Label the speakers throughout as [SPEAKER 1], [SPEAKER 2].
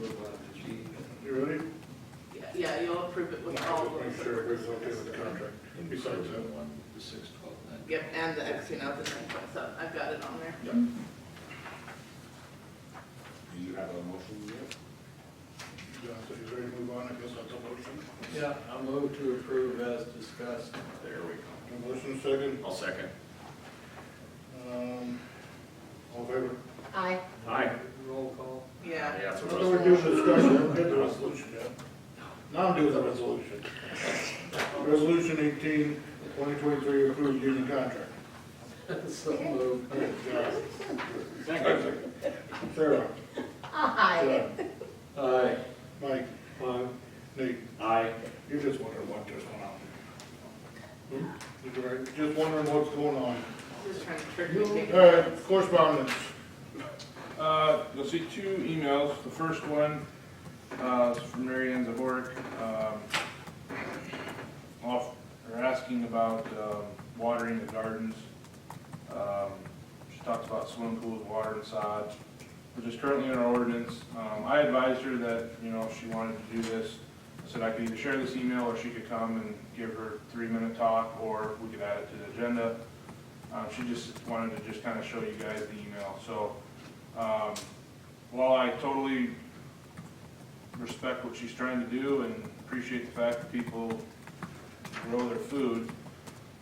[SPEAKER 1] move on to G.
[SPEAKER 2] You ready?
[SPEAKER 3] Yeah, you'll approve it with all
[SPEAKER 2] Just Make
[SPEAKER 3] of
[SPEAKER 2] sure
[SPEAKER 3] them.
[SPEAKER 2] everybody's okay with the contract. Besides that
[SPEAKER 1] one, the six, twelve, nine.
[SPEAKER 3] Yep, and the X, you know, the nine point seven, I've got it on there.
[SPEAKER 1] Do you have a motion yet?
[SPEAKER 2] John said he's ready to move on, I guess that's a motion.
[SPEAKER 4] Yeah, I'll move to approve as discussed.
[SPEAKER 5] There we go.
[SPEAKER 2] A motion second,
[SPEAKER 5] I'll second.
[SPEAKER 2] um, all in favor?
[SPEAKER 6] Aye.
[SPEAKER 5] Aye.
[SPEAKER 4] Roll call.
[SPEAKER 3] Yeah.
[SPEAKER 5] Yeah,
[SPEAKER 2] I
[SPEAKER 5] that's what I
[SPEAKER 2] thought
[SPEAKER 5] was.
[SPEAKER 2] we're doing discussion, I'm getting the resolution yet. Now I'm doing the resolution. Resolution eighteen, twenty twenty-three, approved union contract.
[SPEAKER 4] So moved.
[SPEAKER 2] Okay, John. Sarah,
[SPEAKER 6] Aye.
[SPEAKER 2] John,
[SPEAKER 4] Aye.
[SPEAKER 2] Mike,
[SPEAKER 4] Aye.
[SPEAKER 2] Nate,
[SPEAKER 5] Aye.
[SPEAKER 2] you're just wondering what just went on. Hmm? You're right, just wondering what's going on.
[SPEAKER 3] Just trying to trick me.
[SPEAKER 2] All right, correspondence.
[SPEAKER 7] Uh, you'll see two emails. The first one, uh, is from Mary Ann Zaborik, um, off, or asking about, um, watering the gardens. Um, she talks about swimming pools, water and sod, which is currently in our ordinance. Um, I advised her that, you know, if she wanted to do this, I said I could either share this email or she could come and give her three-minute talk, or we could add it to the agenda. Um, she just wanted to just kind of show you guys the email, so, um, While I totally respect what she's trying to do and appreciate the fact that people grow their food,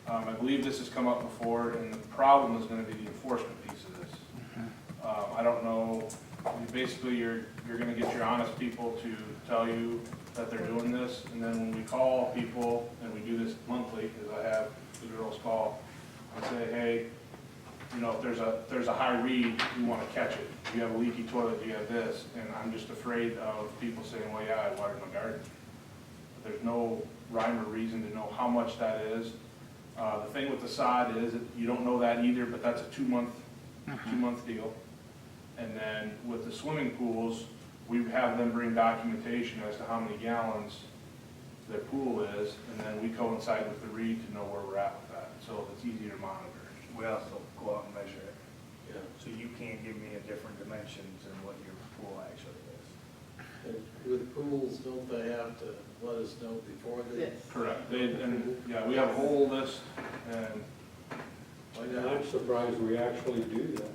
[SPEAKER 7] um, I believe this has come up before, and the problem is gonna be the enforcement piece of this. Um, I don't know, basically, you're, you're gonna get your honest people to tell you that they're doing this, and then when we call people, and we do this monthly, because I have the girls call, and say, hey, you know, if there's a, if there's a high read, you wanna catch it. If you have a leaky toilet, you have this, and I'm just afraid of people saying, well, yeah, I watered my garden. But There's no rhyme or reason to know how much that is. Uh, the thing with the sod is, that you don't know that either, but that's a two-month, two-month deal. And then with the swimming pools, we have them bring documentation as to how many gallons their pool is, and then we coincide with the read to know where we're at with that, so it's easy to monitor.
[SPEAKER 8] We also go out and measure it,
[SPEAKER 4] Yeah.
[SPEAKER 8] so you can't give me a different dimensions than what your pool actually is.
[SPEAKER 4] And With pools, don't they have to let us know before they?
[SPEAKER 3] Yes.
[SPEAKER 7] Correct, they, and, yeah, we have a whole list, and,
[SPEAKER 4] Like that?
[SPEAKER 9] I'm surprised we actually do that.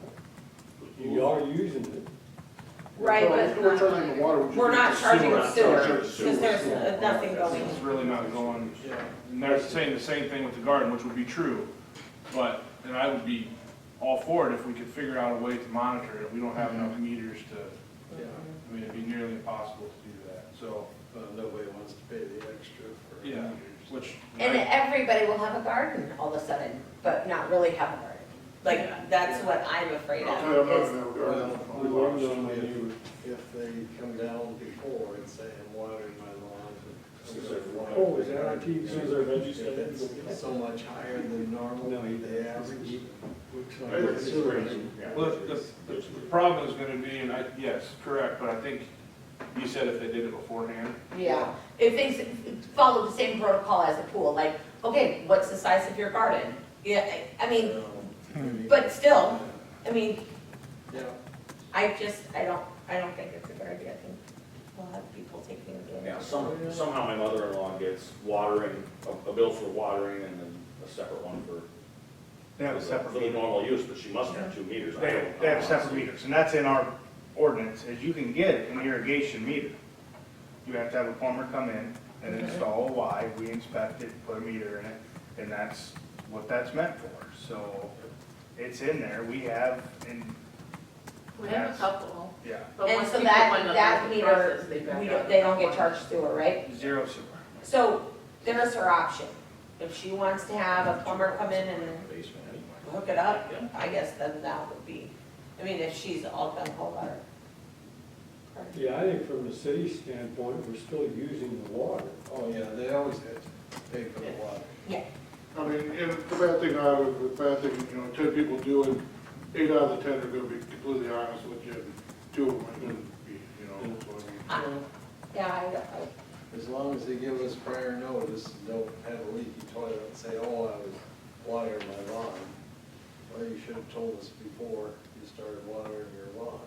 [SPEAKER 9] You are using it.
[SPEAKER 2] Right, but. We're charging the water. which is-
[SPEAKER 10] We're not charging the sewer, because there's nothing going
[SPEAKER 7] it's really not going,
[SPEAKER 4] Yeah.
[SPEAKER 7] and they're saying the same thing with the garden, which would be true, but, and I would be all for it if we could figure out a way to monitor it, we don't have enough meters to,
[SPEAKER 4] Yeah.
[SPEAKER 7] I mean, it'd be nearly impossible to do that, so,
[SPEAKER 4] Well, Uh, nobody wants to pay the extra for.
[SPEAKER 7] yeah,
[SPEAKER 4] meters.
[SPEAKER 7] which.
[SPEAKER 6] And everybody will have a garden all of a sudden, but not really have a garden.
[SPEAKER 10] Like, that's what I'm
[SPEAKER 2] I'll
[SPEAKER 10] afraid
[SPEAKER 2] tell you, I'm
[SPEAKER 10] of,
[SPEAKER 2] not
[SPEAKER 10] is
[SPEAKER 2] gonna have a
[SPEAKER 4] Well,
[SPEAKER 2] garden.
[SPEAKER 4] we learned on you if they come down before and say, I'm watering my lawn. and-
[SPEAKER 9] Oh, is that on TV? Is there
[SPEAKER 4] If it's so much higher than normal,
[SPEAKER 9] No, you-
[SPEAKER 4] they average.
[SPEAKER 2] It's crazy.
[SPEAKER 7] Well, the, the, the problem is gonna be, and I, yes, correct, but I think you said if they did it beforehand,
[SPEAKER 10] yeah.
[SPEAKER 6] If they s- follow the same protocol as a pool, like, okay, what's the size of your garden? Yeah, I I mean, but still, I mean,
[SPEAKER 4] Yeah,
[SPEAKER 10] I just, I don't, I don't think it's a good idea, I think we'll have people taking advantage.
[SPEAKER 5] Yeah, some, somehow my mother-in-law gets watering, a, a bill for watering and then a separate one for.
[SPEAKER 8] They have a
[SPEAKER 5] for the-
[SPEAKER 8] separate
[SPEAKER 5] For the
[SPEAKER 8] meter.
[SPEAKER 5] normal use, but she must have two meters. I
[SPEAKER 8] They,
[SPEAKER 5] don't-
[SPEAKER 8] they have separate meters, and that's in our ordinance, is you can get an irrigation meter. You have to have a plumber come in and install a Y, we inspect it, put a meter in it, and that's what that's meant for. So it's in there, we have, and,
[SPEAKER 3] We have a couple,
[SPEAKER 8] yeah,
[SPEAKER 3] but
[SPEAKER 10] And
[SPEAKER 3] once
[SPEAKER 10] so
[SPEAKER 3] people
[SPEAKER 10] that,
[SPEAKER 3] find out
[SPEAKER 10] that
[SPEAKER 3] the process,
[SPEAKER 10] meter,
[SPEAKER 3] they back
[SPEAKER 10] we
[SPEAKER 3] out.
[SPEAKER 10] don't, they don't get charged sewer, right?
[SPEAKER 8] zero sewer.
[SPEAKER 10] So there's her option. If she wants to have a plumber come in and
[SPEAKER 5] Basement anyway.
[SPEAKER 10] hook it up, I guess then that would be, I mean, if she's all gung ho about her. her-
[SPEAKER 9] Yeah, I think from the city standpoint, we're still using the water.
[SPEAKER 4] oh, yeah, they always have to pay for the water.
[SPEAKER 2] I mean, and the bad thing I would, the bad thing, you know, ten people do it, eight out of the ten are gonna be completely honest with you, and two of them are gonna be, you know, so I mean.
[SPEAKER 10] I- Yeah, I, I-
[SPEAKER 4] As long as they give us prior notice and don't have a leaky toilet and say, oh, I was watering my lawn. Well, you should have told us before you started watering your lawn.